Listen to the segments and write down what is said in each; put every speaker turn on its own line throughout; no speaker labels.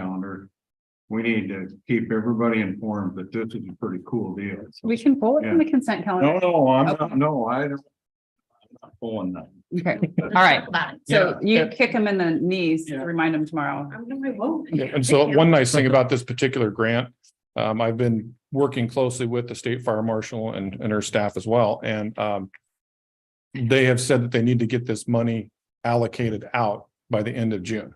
calendar. We need to keep everybody informed that this is a pretty cool deal.
We can pull it from the consent
No,
calendar.
no, I'm
Okay.
not, no, I don't. I'm not Pulling that.
Okay, all right. So
Yeah.
you kick him in the knees,
Yeah.
remind him tomorrow.
And so one nice thing about this particular grant, um, I've been working closely with the state fire marshal and, and her staff as well, and, um, they have said that they need to get this money allocated out by the end of June.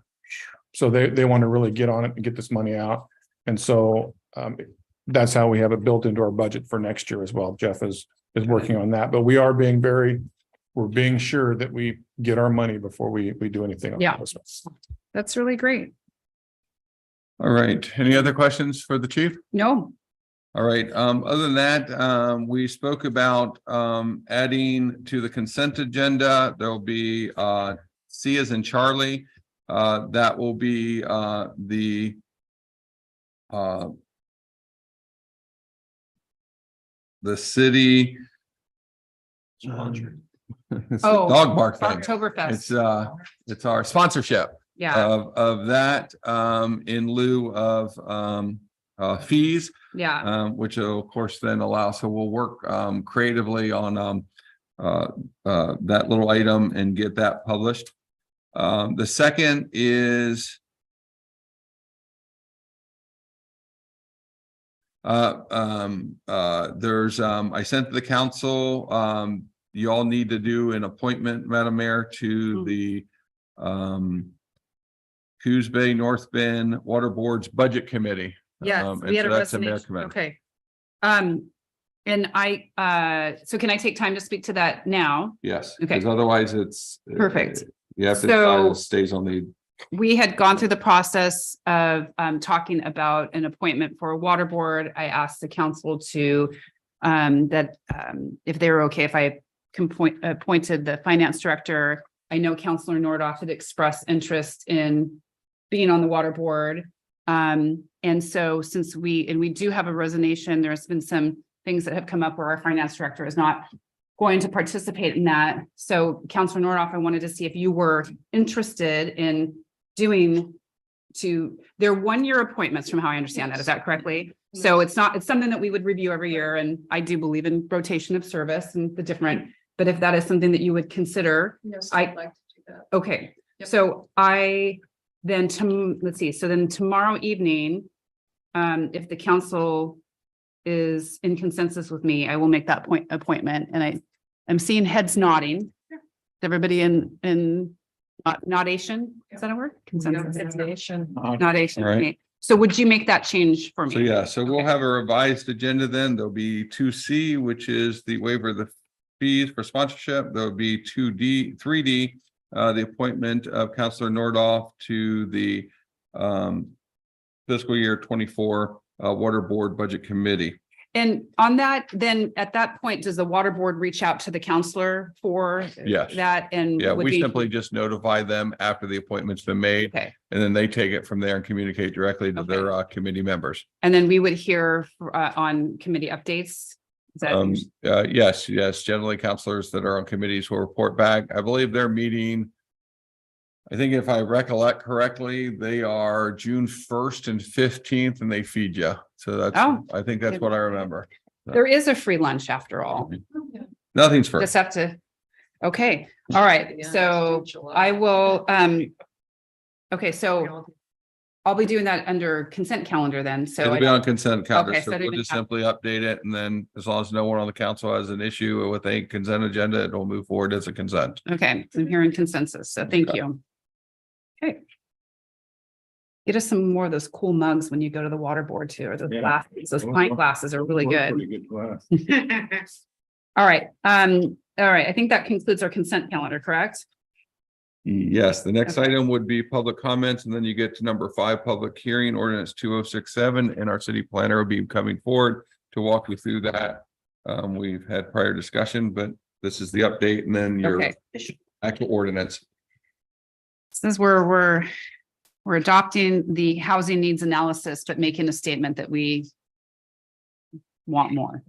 So they, they want to really get on it and get this money out. And so, um, that's how we have it built into our budget for next year as well. Jeff is, is working on that, but we are being very, we're being sure that we get our money before we, we do anything. on
Yeah.
this.
That's really great.
All right, any other questions for the chief?
No,
All right, um, other than that, um, we spoke about, um, adding to the consent agenda, there'll be, uh, C as in Charlie. Uh, that will be, uh, the, uh, the city. It's a
Oh,
Dog bark thing. It's,
Oktoberfest,
uh, it's our sponsorship
yeah,
of, of that, um, in lieu of, um, uh, fees
yeah,
um, which will, of course then allow, so we'll work, um, creatively on, um, uh, uh, that little item and get that published. Um, the second is uh, um, uh, there's, um, I sent to the council, um, you all need to do an appointment, Madam Mayor, to
Mm.
the, um, Coos Bay, North Bend Water Board's Budget Committee.
yes,
um,
we had a
and so that's in their
resignation,
command.
okay. Um, and I, uh, so can I take time to speak to that now?
Yes,
Okay.
because otherwise it's.
Perfect.
You have
So-
to, decide it stays on the,
we had gone through the process of um talking about an appointment for a water board. I asked the council to um that um if they were okay, if I can point appointed the finance director. I know Counselor Nordoff had expressed interest in being on the water board. Um, and so since we, and we do have a resignation, there's been some things that have come up where our finance director is not going to participate in that. So Counselor Nordoff, I wanted to see if you were interested in doing to, they're one-year appointments from how I understand that. Is that correctly? So it's not, it's something that we would review every year and I do believe in rotation of service and the different, but if that is something that you would consider,
Yes,
I-
I'd like to do that.
okay.
Yep.
So I then to, let's see, so then tomorrow evening, um, if the council is in consensus with me, I will make that point appointment and I am seeing heads nodding. Is Everybody in in uh, nodation, is that a word? Consensus.
Uh,
Nodation.
Right.
okay. So would you make that change for me?
so yeah, so we'll
Okay.
have a revised agenda then. There'll be two C, which is the waiver of the fees for sponsorship. There'll be two D, three D, uh, the appointment of Counselor Nordoff to the um fiscal year twenty-four uh Water Board Budget Committee.
And on that, then at that point, does the water board reach out to the counselor for
Yes.
that and?
Yeah,
would
we
be-
simply just notify them after the appointment's been made,
Okay.
and then they take it from there and communicate directly to
Okay.
their uh committee members.
And then we would hear uh, on committee updates. Is that-
Um, uh, yes, yes, generally counselors that are on committees will report back. I believe their meeting. I think if I recollect correctly, they are June first and fifteenth and they feed you. So that's,
Oh.
I think that's what I remember.
There is a free lunch after all.
Oh,
Nothing's first.
Just have to, okay, all right. So I will, um, okay, so I'll be doing that under consent calendar then. So
It'll
I
be
don't-
on consent calendar,
Okay, so
so
I don't
we'll
even
just
have-
simply update it and then as long as no one on the council has an issue with a consent agenda, it'll move forward as a consent.
okay, I'm hearing consensus. So thank you. Okay. Get us some more of those cool mugs when you go to the water board too, or those
Yeah.
glasses, those pint glasses are really
we're
good.
Pretty good class.
All right, um, all right, I think that concludes our consent calendar, correct?
Yes, the next
Okay.
item would be public comments, and then you get to number five, public hearing ordinance two oh six seven, and our city planner will be coming forward to walk you through that. Um, we've had prior discussion, but this is the update and then your
Okay.
actual ordinance.
Since we're, we're, we're adopting the housing needs analysis, but making a statement that we want more,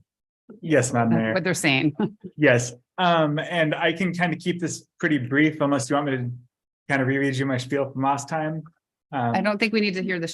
Yes, Madam
That's
Mayor.
what they're saying.
Yes, um, and I can kind of keep this pretty brief unless you want me to kind of reread you my spiel from last time. Um,
I don't think we need to hear the